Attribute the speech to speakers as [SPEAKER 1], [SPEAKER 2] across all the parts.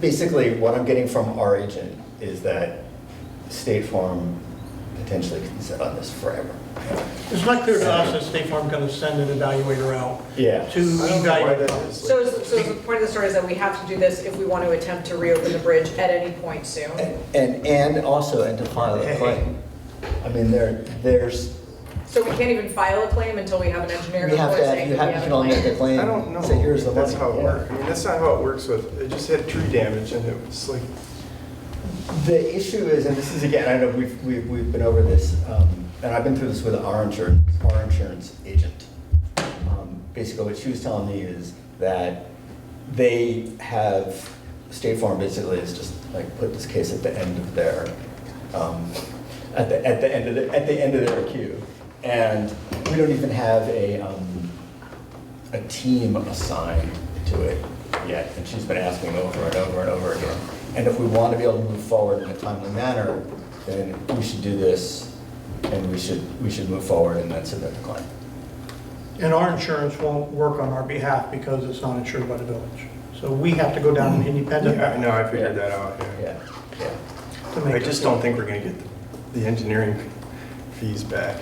[SPEAKER 1] basically, what I'm getting from our agent is that State Farm potentially can sit on this forever.
[SPEAKER 2] It's not clear to us that State Farm going to send an evaluator out
[SPEAKER 1] Yeah.
[SPEAKER 2] to
[SPEAKER 3] I don't know why
[SPEAKER 2] evaluate.
[SPEAKER 3] that is.
[SPEAKER 4] So, is- so the point of the story is that we have to do this if we want to attempt to reopen the bridge at any point soon.
[SPEAKER 1] And, and- and also, and to file a claim. I mean, there, there's,
[SPEAKER 4] So we can't even file a claim until we have an engineer
[SPEAKER 1] we have
[SPEAKER 4] report
[SPEAKER 1] to, have-
[SPEAKER 4] saying
[SPEAKER 1] you
[SPEAKER 4] that we
[SPEAKER 1] have, you
[SPEAKER 4] have a
[SPEAKER 1] can only make a
[SPEAKER 4] claim.
[SPEAKER 1] claim.
[SPEAKER 3] I don't know.
[SPEAKER 1] Say, here's the
[SPEAKER 3] That's
[SPEAKER 1] money.
[SPEAKER 3] how it
[SPEAKER 1] Yeah.
[SPEAKER 3] works. I mean, that's not how it works with, it just had tree damage and it was like,
[SPEAKER 1] The issue is, and this is again, I know we've, we've, we've been over this, um, and I've been through this with our insurance, our insurance agent. Um, Basically, what she was telling me is that they have, State Farm basically has just like put this case at the end of their, um, at the, at the end of, the at the end of their queue. And we don't even have a, um, a team assigned to it yet, and she's been asking over and over and over again. And if we want to be able to move forward in a timely manner, then we should do this, and we should, we should move forward and then submit the claim.
[SPEAKER 2] And our insurance won't work on our behalf because it's not insured by the village. So we have to go down an independent
[SPEAKER 3] yeah, I know,
[SPEAKER 2] path
[SPEAKER 3] I figured that out, yeah.
[SPEAKER 1] Yeah, yeah.
[SPEAKER 2] to make
[SPEAKER 3] I
[SPEAKER 2] it.
[SPEAKER 3] just don't think we're gonna get the- the engineering fees back.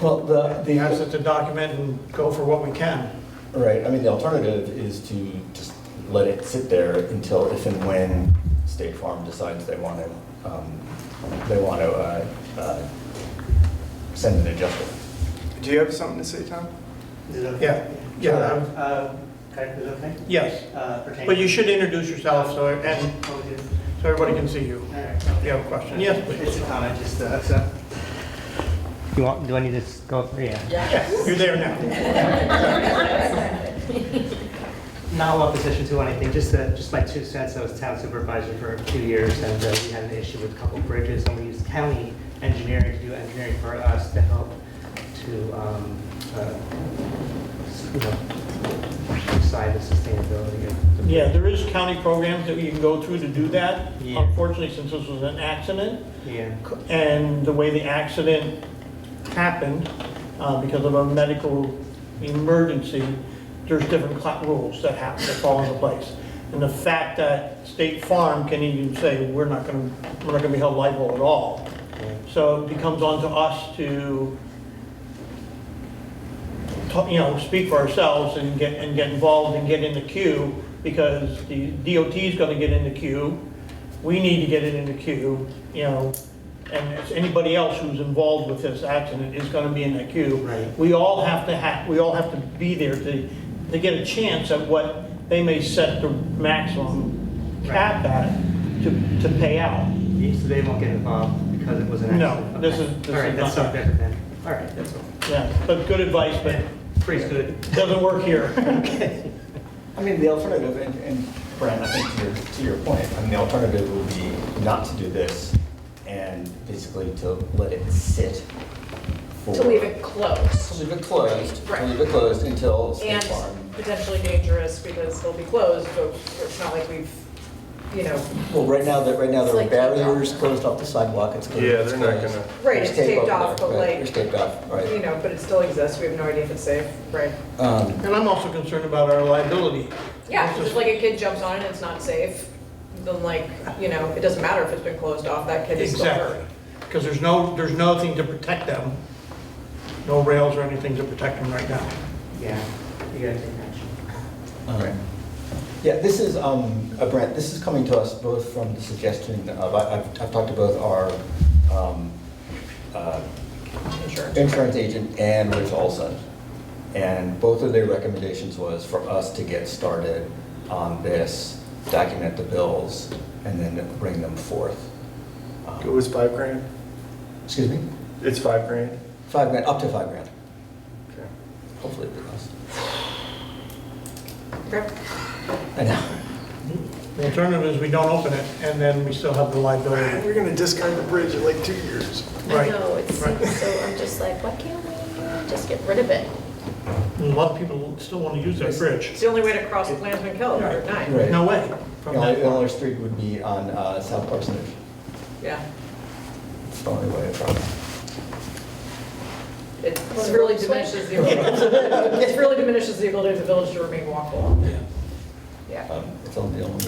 [SPEAKER 1] Well, the,
[SPEAKER 2] We have to
[SPEAKER 1] the,
[SPEAKER 2] to document and go for what we can.
[SPEAKER 1] right, I mean, the alternative is to just let it sit there until if and when State Farm decides they want to, um, they want to, uh, uh, send an adjustment.
[SPEAKER 3] Do you have something to say, Tom?
[SPEAKER 5] Is it okay?
[SPEAKER 2] Yeah, yeah,
[SPEAKER 5] Uh, Okay, is it okay?
[SPEAKER 2] yes.
[SPEAKER 5] Uh, Pertaining.
[SPEAKER 2] But you should introduce yourself so, and
[SPEAKER 5] Oh, we did.
[SPEAKER 2] so everybody can see you.
[SPEAKER 5] All right, okay.
[SPEAKER 2] If you have a question, yes,
[SPEAKER 5] It's
[SPEAKER 2] please.
[SPEAKER 5] a comment, just, uh, so. You want, do I need to s- go, yeah?
[SPEAKER 2] You're there now.
[SPEAKER 5] Not a lot of position to anything, just, uh, just my two cents, I was town supervisor for two years, and uh, we had an issue with a couple bridges, and we used county engineering to do engineering for us to help to, um, uh, you know, decide the sustainability of the bridge.
[SPEAKER 2] Yeah, there is county programs that you can go through to do that.
[SPEAKER 5] Yeah.
[SPEAKER 2] Unfortunately, since this was an accident,
[SPEAKER 5] Yeah.
[SPEAKER 2] and the way the accident happened, uh, because of a medical emergency, there's different cla- rules that have to fall into place. And the fact that State Farm can even say, we're not gonna, we're not gonna be held liable at all.
[SPEAKER 5] Yeah.
[SPEAKER 2] So it becomes onto us to, ta- you know, speak for ourselves and get, and get involved and get in the queue, because the DOT is gonna get in the queue, we need to get it in the queue, you know, and it's anybody else who's involved with this accident is gonna be in that queue.
[SPEAKER 5] Right.
[SPEAKER 2] We all have to ha, we all have to be there to, to get a chance at what they may set the maximum cap at to, to pay out.
[SPEAKER 5] Yeah, So they won't get involved because it was an
[SPEAKER 2] No,
[SPEAKER 5] accident?
[SPEAKER 2] this
[SPEAKER 5] Okay.
[SPEAKER 2] is- this
[SPEAKER 5] All right,
[SPEAKER 2] is
[SPEAKER 5] that's
[SPEAKER 2] not-
[SPEAKER 5] not better then. All right, that's all.
[SPEAKER 2] Yeah, but good advice, but
[SPEAKER 5] Pretty good.
[SPEAKER 2] doesn't work here.
[SPEAKER 1] I mean, the alternative, and, and Brian, I think to your, to your point, I mean, the alternative would be not to do this and basically to let it sit for.
[SPEAKER 4] To leave it
[SPEAKER 1] To
[SPEAKER 4] closed
[SPEAKER 1] leave it closed, to
[SPEAKER 4] Right.
[SPEAKER 1] leave it closed until State
[SPEAKER 4] and
[SPEAKER 1] Farm.
[SPEAKER 4] potentially dangerous because they'll be closed, but it's not like we've, you know,
[SPEAKER 1] Well, right now, that, right now, there are
[SPEAKER 4] It's like taped off.
[SPEAKER 1] barriers closed off the sidewalk, it's closed.
[SPEAKER 3] Yeah,
[SPEAKER 1] it's
[SPEAKER 3] they're not
[SPEAKER 1] closed.
[SPEAKER 3] gonna-
[SPEAKER 4] Right, it's
[SPEAKER 1] There's tape
[SPEAKER 4] taped
[SPEAKER 1] up
[SPEAKER 4] off,
[SPEAKER 1] there,
[SPEAKER 4] but
[SPEAKER 1] right,
[SPEAKER 4] like-
[SPEAKER 1] There's taped off,
[SPEAKER 4] you
[SPEAKER 1] right.
[SPEAKER 4] know, but it still exists. We have no idea if it's safe, right?
[SPEAKER 1] Um,
[SPEAKER 2] And I'm also concerned about our liability.
[SPEAKER 4] Yeah, just like a kid jumps on it and it's not safe, then like, you know, it doesn't matter if it's been closed off, that kid is still
[SPEAKER 2] Exactly,
[SPEAKER 4] hurt.
[SPEAKER 2] because there's no, there's nothing to protect them, no rails or anything to protect them right now.
[SPEAKER 5] Yeah, you gotta take action.
[SPEAKER 1] Um, Yeah, this is, um, uh, Brent, this is coming to us both from the suggestion of, I- I've, I've talked to both our, um, uh, Insurance agent and Rich Olson. And both of their recommendations was for us to get started on this, document the bills, and then bring them forth. Um,
[SPEAKER 3] It was five grand?
[SPEAKER 1] Excuse me?
[SPEAKER 3] It's five grand?
[SPEAKER 1] Five grand, up to five grand,
[SPEAKER 3] Okay.
[SPEAKER 1] hopefully it'll be less.
[SPEAKER 4] Okay.
[SPEAKER 1] I know.
[SPEAKER 2] The alternative is we don't open it, and then we still have the liability.
[SPEAKER 3] We're gonna discard the bridge in like two years.
[SPEAKER 6] I
[SPEAKER 2] Right.
[SPEAKER 6] know, it
[SPEAKER 2] Right.
[SPEAKER 6] seems so, I'm just like, why can't we just get rid of it?
[SPEAKER 2] And A lot of people still want to use that bridge.
[SPEAKER 4] It's the only way to cross the Klansman Kill, Route 9.
[SPEAKER 1] Right.
[SPEAKER 2] No way.
[SPEAKER 1] The
[SPEAKER 2] From
[SPEAKER 1] only,
[SPEAKER 2] that
[SPEAKER 1] the only street would be on uh, South Parsonage,
[SPEAKER 4] Yeah.
[SPEAKER 1] it's the only way across.
[SPEAKER 4] It really diminishes the, it really diminishes the ability of the village to remain walkable. Yeah.
[SPEAKER 1] Um, It's only the only